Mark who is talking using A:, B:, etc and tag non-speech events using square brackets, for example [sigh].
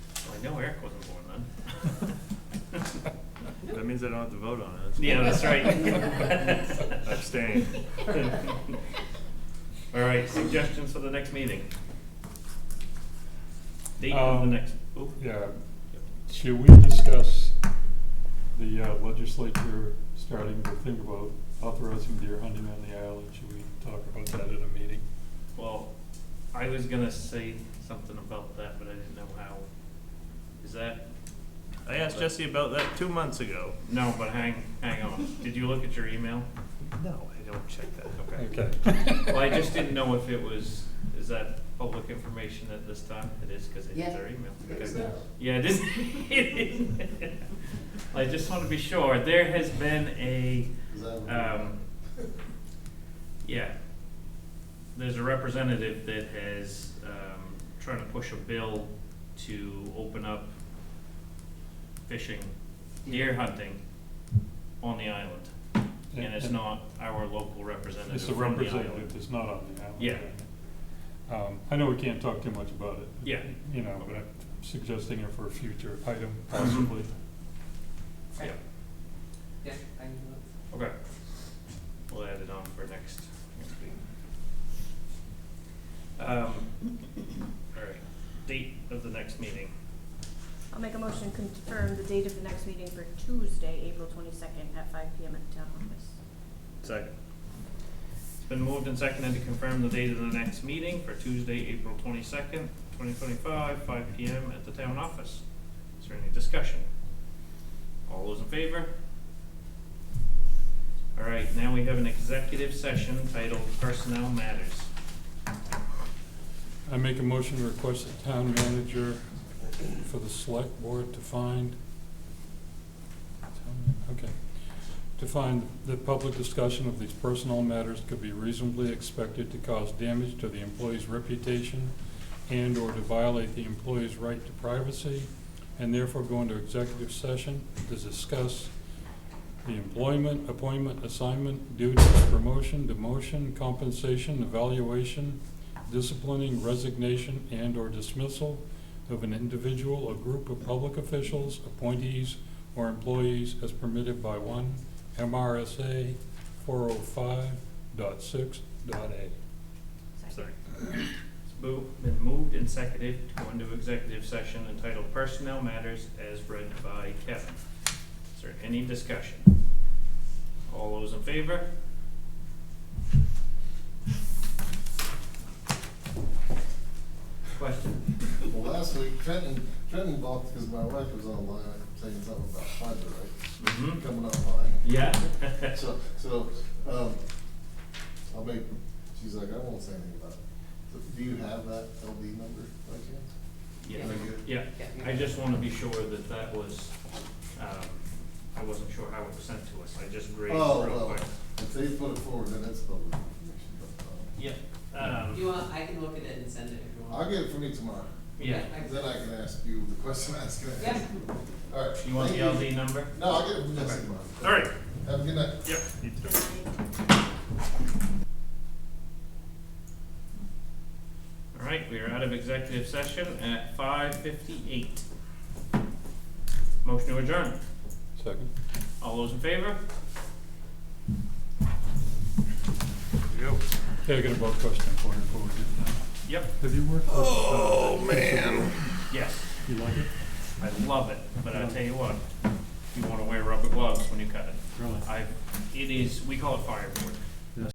A: I know Eric wasn't born then.
B: That means I don't have to vote on it.
A: Yeah, that's right. [laughs]
B: [laughs] Abstain.
A: All right, suggestions for the next meeting? Date of the
C: Um,
A: next, oh,
C: Yeah, should we discuss the uh, legislature starting to think about authorizing deer hunting on the island? Should we talk about that at a meeting?
A: well, I was gonna say something about that, but I didn't know how. Is that,
B: I asked Jesse about that two months ago.
A: no, but hang, hang on. Did you look at your email?
B: No, I don't check that.
A: [laughs]
C: Okay.
A: Well, I just didn't know if it was, is that public information at this time? It is, because it is
D: Yeah.
A: our email.
D: It is
A: Okay.
D: now.
A: Yeah, it is. it is. [laughs] I just want to be sure. There has been a,
D: Is that-
A: um, yeah, there's a representative that has, um, trying to push a bill to open up fishing, deer hunting on the island. And it's not our local representative
C: It's a
A: from the
C: representative
A: island.
C: that's not on the island.
A: Yeah.
C: Um, I know we can't talk too much about it.
A: Yeah.
C: You know, but I'm suggesting it for a future item
A: [clears throat]
C: possibly.
A: Yeah,
E: Yeah, I can do it.
A: okay. We'll add it on for next, next week. Um, all right, date of the next meeting.
F: I'll make a motion to confirm the date of the next meeting for Tuesday, April twenty-second at five P M at the town office.
B: Second.
A: It's been moved and seconded to confirm the date of the next meeting for Tuesday, April twenty-second, twenty twenty-five, five P M at the town office. Is there any discussion? All those in favor? All right, now we have an executive session titled Personnel Matters.
C: I make a motion to request the town manager for the select board to find, okay, to find that public discussion of these personnel matters could be reasonably expected to cause damage to the employee's reputation and/or to violate the employee's right to privacy, and therefore go into executive session to discuss the employment, appointment, assignment, duties, promotion, demotion, compensation, evaluation, disciplining, resignation, and/or dismissal of an individual or group of public officials, appointees, or employees as permitted by one MRSA 405.6.a.
A: Sorry. It's mo- been moved and seconded to go into executive session entitled Personnel Matters as read by Kevin. Is there any discussion? All those in favor? Question?
D: Well, last week, Trenton, Trenton balked because my wife was online saying something about fiber, right?
A: Mm-hmm.
D: Coming online.
A: Yeah? [laughs]
D: So, so, um, I'll make, she's like, I won't say anything about it. So Do you have that LD number by chance?
A: Yeah,
D: Is that good?
A: yeah.
E: Yeah.
A: I just wanna be sure that that was, um, I wasn't sure how it was sent to us. I just grazed
D: Oh,
A: real
D: well,
A: quick.
D: if they put it forward, then it's public information, but,
A: Yeah,
E: You
A: um,
E: want, I can look at it and send it if you
D: um, I'll
E: want.
D: get it from you tomorrow.
A: yeah.
E: I-
D: Then I can ask you the question I was gonna ask.
E: Yeah.
D: All right.
A: You want
D: thank
A: the LD number?
D: No, I'll get it from Jesse tomorrow.
A: All right,
D: Have a good night.
A: yep.
B: You too.
A: All right, we are out of executive session at five fifty-eight. Motion to adjourn.
C: Second.
A: All those in favor?
C: Hey, I got a vote question for you before we get done.
A: Yep,
C: Have you worked with? Oh, man.
A: yes.
C: You like it?
A: I love it, but I tell you what, you wanna wear rubber gloves when you cut it.
C: Really?
A: I, it is, we call it firework.